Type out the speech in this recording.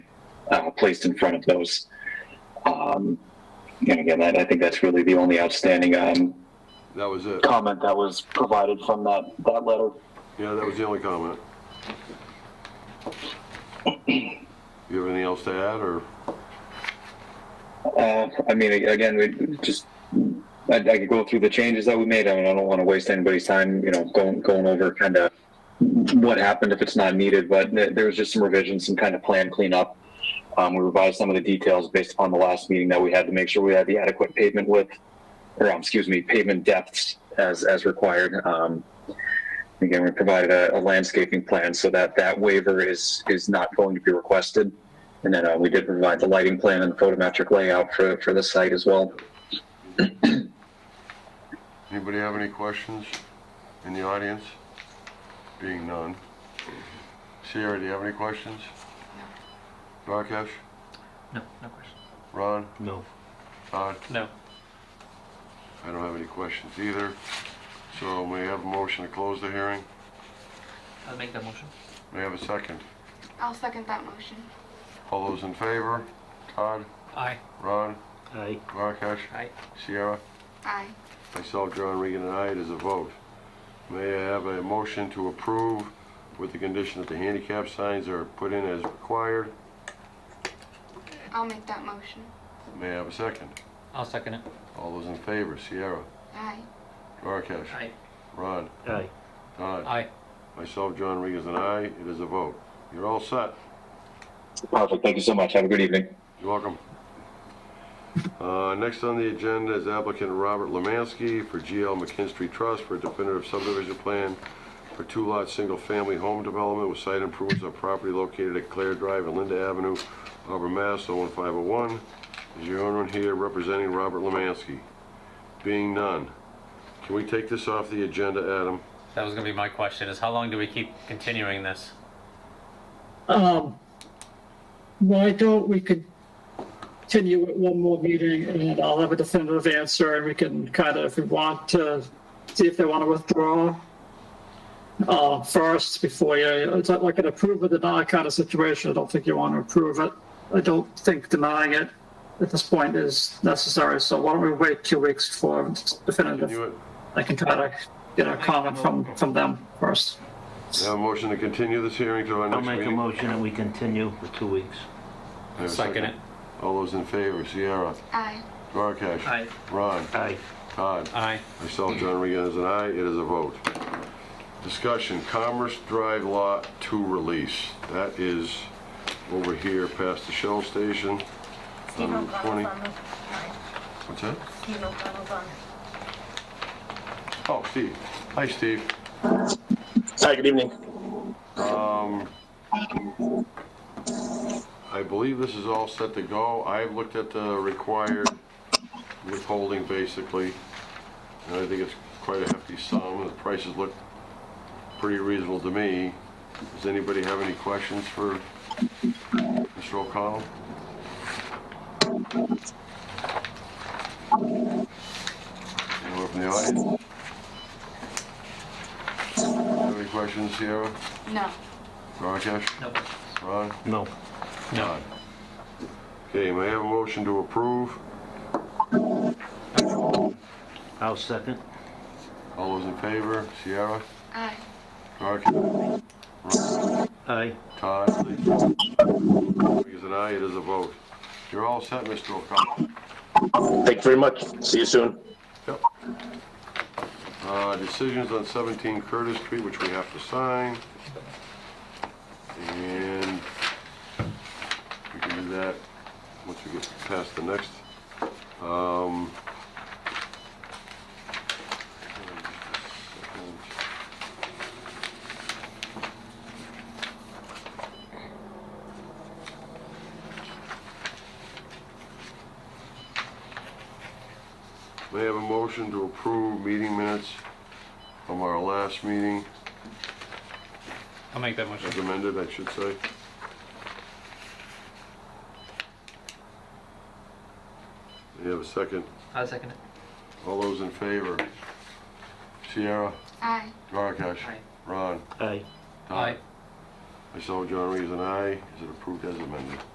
uh, placed in front of those. Um, and again, that, I think that's really the only outstanding um, That was it. comment that was provided from that, that letter. Yeah, that was the only comment. You have anything else to add, or? Uh, I mean, again, we just, I, I could go through the changes that we made. I mean, I don't want to waste anybody's time, you know, going, going over kind of what happened if it's not needed, but th- there was just some revisions, some kind of plan cleanup. Um, we revised some of the details based upon the last meeting that we had to make sure we had the adequate pavement width, or um, excuse me, pavement depths as, as required. Um, again, we provided a, a landscaping plan so that that waiver is, is not going to be requested. And then uh, we did provide the lighting plan and photometric layout for, for the site as well. Anybody have any questions in the audience? Being none. Sierra, do you have any questions? Rakesh? No, no question. Ron? No. Todd? No. I don't have any questions either. So may I have a motion to close the hearing? I'll make that motion. May I have a second? I'll second that motion. All those in favor? Todd? Aye. Ron? Aye. Rakesh? Aye. Sierra? Aye. Myself, John Regan, and I, it is a vote. May I have a motion to approve with the condition that the handicap signs are put in as required? I'll make that motion. May I have a second? I'll second it. All those in favor, Sierra, Aye. Duarkesh, Aye. Ron, Aye. Todd. Aye. Myself, John Regan, and I, it is a vote. You're all set. Perfect. Thank you so much. Have a good evening. You're welcome. Uh, Next on the agenda is applicant Robert Lemansky for GL McKinstry Trust for a definitive subdivision plan for two-lot, single-family home development with site improvements on property located at Claire Drive and Linda Avenue, Auburn, Mass. 01501. Is your owner here representing Robert Lemansky? Being none. Can we take this off the agenda, Adam? That was gonna be my question, is how long do we keep continuing this? Um, why don't we continue it one more meeting and I'll have a definitive answer and we can kind of, if we want to, see if they want to withdraw uh, first before you, it's not like an approve or deny kind of situation. I don't think you want to approve it. I don't think denying it at this point is necessary. So why don't we wait two weeks for Continue definitive? it? I can try to get a comment from, from them first. Have a motion to continue this hearing to our I'll next meeting? make a motion that we continue for two weeks. Have a Second it. All those in favor, Sierra, Aye. Duarkesh. Aye. Ron, Aye. Todd. Aye. Myself, John Regan, is an aye. It is a vote. Discussion, Commerce Drive Lot 2 release. That is over here past the Shell Station. Steve Um, twenty- O'Connell's on the, sorry, What's that? Steve O'Connell's on. Oh, Steve. Hi, Steve. Hi, good evening. I believe this is all set to go. I've looked at the required withholding, basically, and I think it's quite a hefty sum. The prices look pretty reasonable to me. Does anybody have any questions for Mr. O'Connell? Anyone from the audience? Have any questions, Sierra? No. Rakesh? No questions. Ron? No. No. Okay, may I have a motion to approve? I'll second. All those in favor, Sierra, Aye. Clark, Aye. Todd? Is an aye, it is a vote. You're all set, Mr. O'Connell. Thank you very much. See you soon. Yep. Uh, Decisions on 17 Curtis Street, which we have to sign. And we can do that once we get past the next. Um, May I have a motion to approve meeting minutes from our last meeting, I'll make that motion. as amended, I should say? May I have a second? I'll second it. All those in favor? Sierra, Aye. Duarkesh, Aye. Ron, Aye. Todd. Myself, John Reed, and I. Is it approved as amended?